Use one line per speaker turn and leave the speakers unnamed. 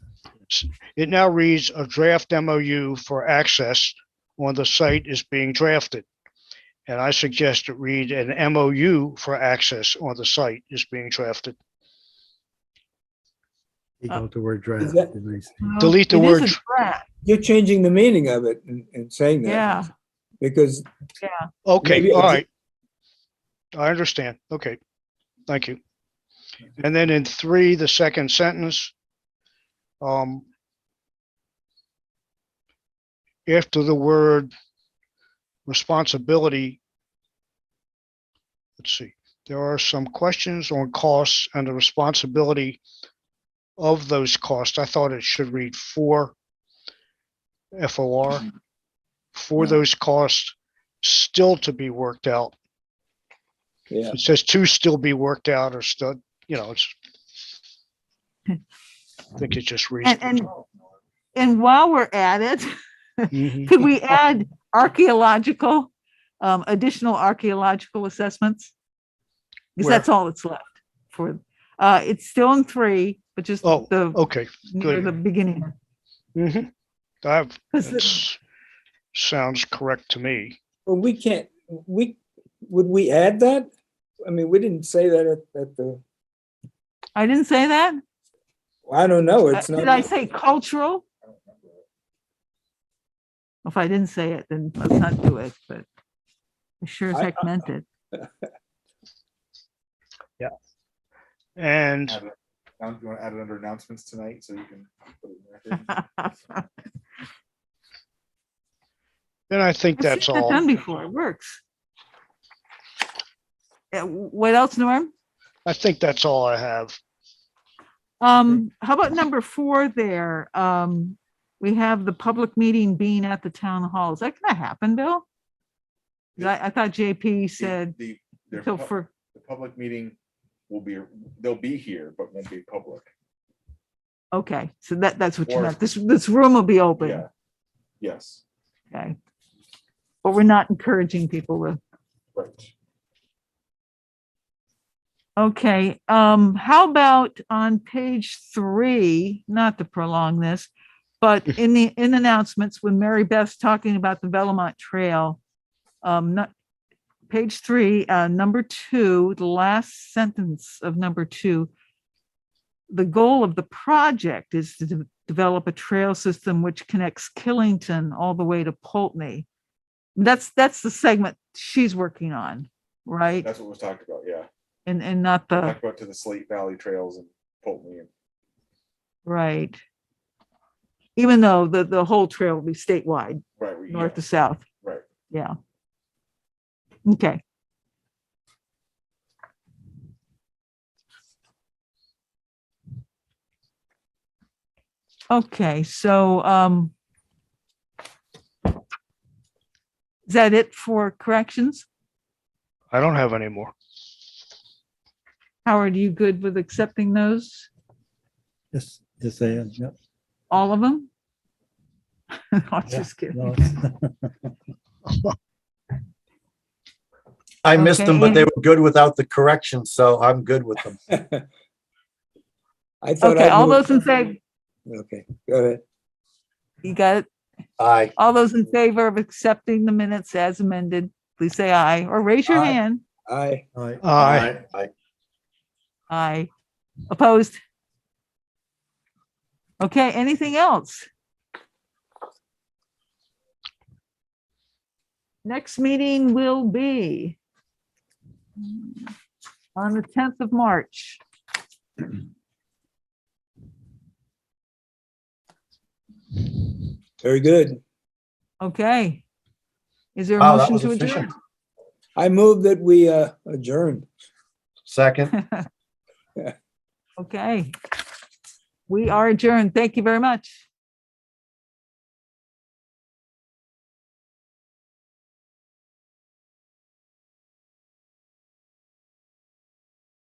ordinance. It now reads a draft MOU for access on the site is being drafted. And I suggest it read an MOU for access on the site is being drafted.
Take
Uh,
out the word draft.
is that-
and I say-
Well,
Delete the
Oh, it is a
word-
draft.
You're changing the meaning of it and, and saying that.
Yeah,
Because
Okay,
Maybe
all
it's-
right. I understand. Okay, thank you. And then in three, the second sentence. Um. After the word responsibility. Let's see, there are some questions on costs and the responsibility of those costs. I thought it should read for FOR. For
Yeah.
those costs still to be worked out.
yeah,
It says to still be worked out or still, you know, it's. I think it just reads.
and, and, and while we're at it,
Mhm.
could we add archaeological, um, additional archaeological assessments? Because
Where?
that's all that's left for, uh, it's still in three, but just
Oh,
the,
Okay,
near
good.
the beginning.
mhm. that
Because
that's- sounds correct to me.
well, we can't, we, would we add that? I mean, we didn't say that at, at the,
I didn't say that.
I don't know,
Uh,
it's
Did I
not,
say cultural? If I didn't say it, then let's not do it, but I sure as
I-
heck meant it.
And
Add it. Now, you want to add it under announcements tonight, so you can. put it in there.
then I think
I've seen
that's
that Done
all.
before, it works. Yeah, what else, Norm?
I think that's all I have.
Um, how about number four there? Um, we have the public meeting being at the town hall. Is that gonna happen, Bill? 'Cause I, I thought JP said,
The, their
so
pub-
for,
the public meeting will be, they'll be here, but won't be public.
okay, so that, that's what you
Or-
meant. This, this room will be open,
Yeah. Yes,
okay? But we're not encouraging people to,
right.
okay, um, how about on page three, not to prolong this, but in the, in announcements, when Mary Beth's talking about the Belmont Trail, um, not, page three, uh, number two, the last sentence of number two. The goal of the project is to de- develop a trail system which connects Killington all the way to Poltony. That's, that's the segment she's working on, right?
That's what was talked about, yeah.
And, and not the,
Talked about to the Slate Valley Trails and Polton and
right. Even though the, the whole trail will be statewide,
right. we-
north to
yeah,
south.
Right.
Yeah. Okay. Okay, so, um, is that it for corrections?
I don't have any more.
Howard, you good with accepting those?
Yes, yes, I am. Yep.
All of them? I'm
Yeah,
just kidding.
no, it's-
I missed them,
Okay.
but they were good without the correction, so I'm good with them.
I thought.
Okay,
I
all
moved-
those in favor,
Okay, go ahead.
you got it?
Aye.
All those in favor of accepting the minutes as amended, please say aye or raise your
Aye.
hand.
Aye.
Aye.
Aye.
Aye.
Aye. Opposed? Okay, anything else? Next meeting will be on the 10th of March.
Very good.
Okay. Is there a
Wow, that
motion
was
to adjourn?
efficient.
I move that we uh, adjourn.
Second,
Okay. We are adjourned. Thank you very much.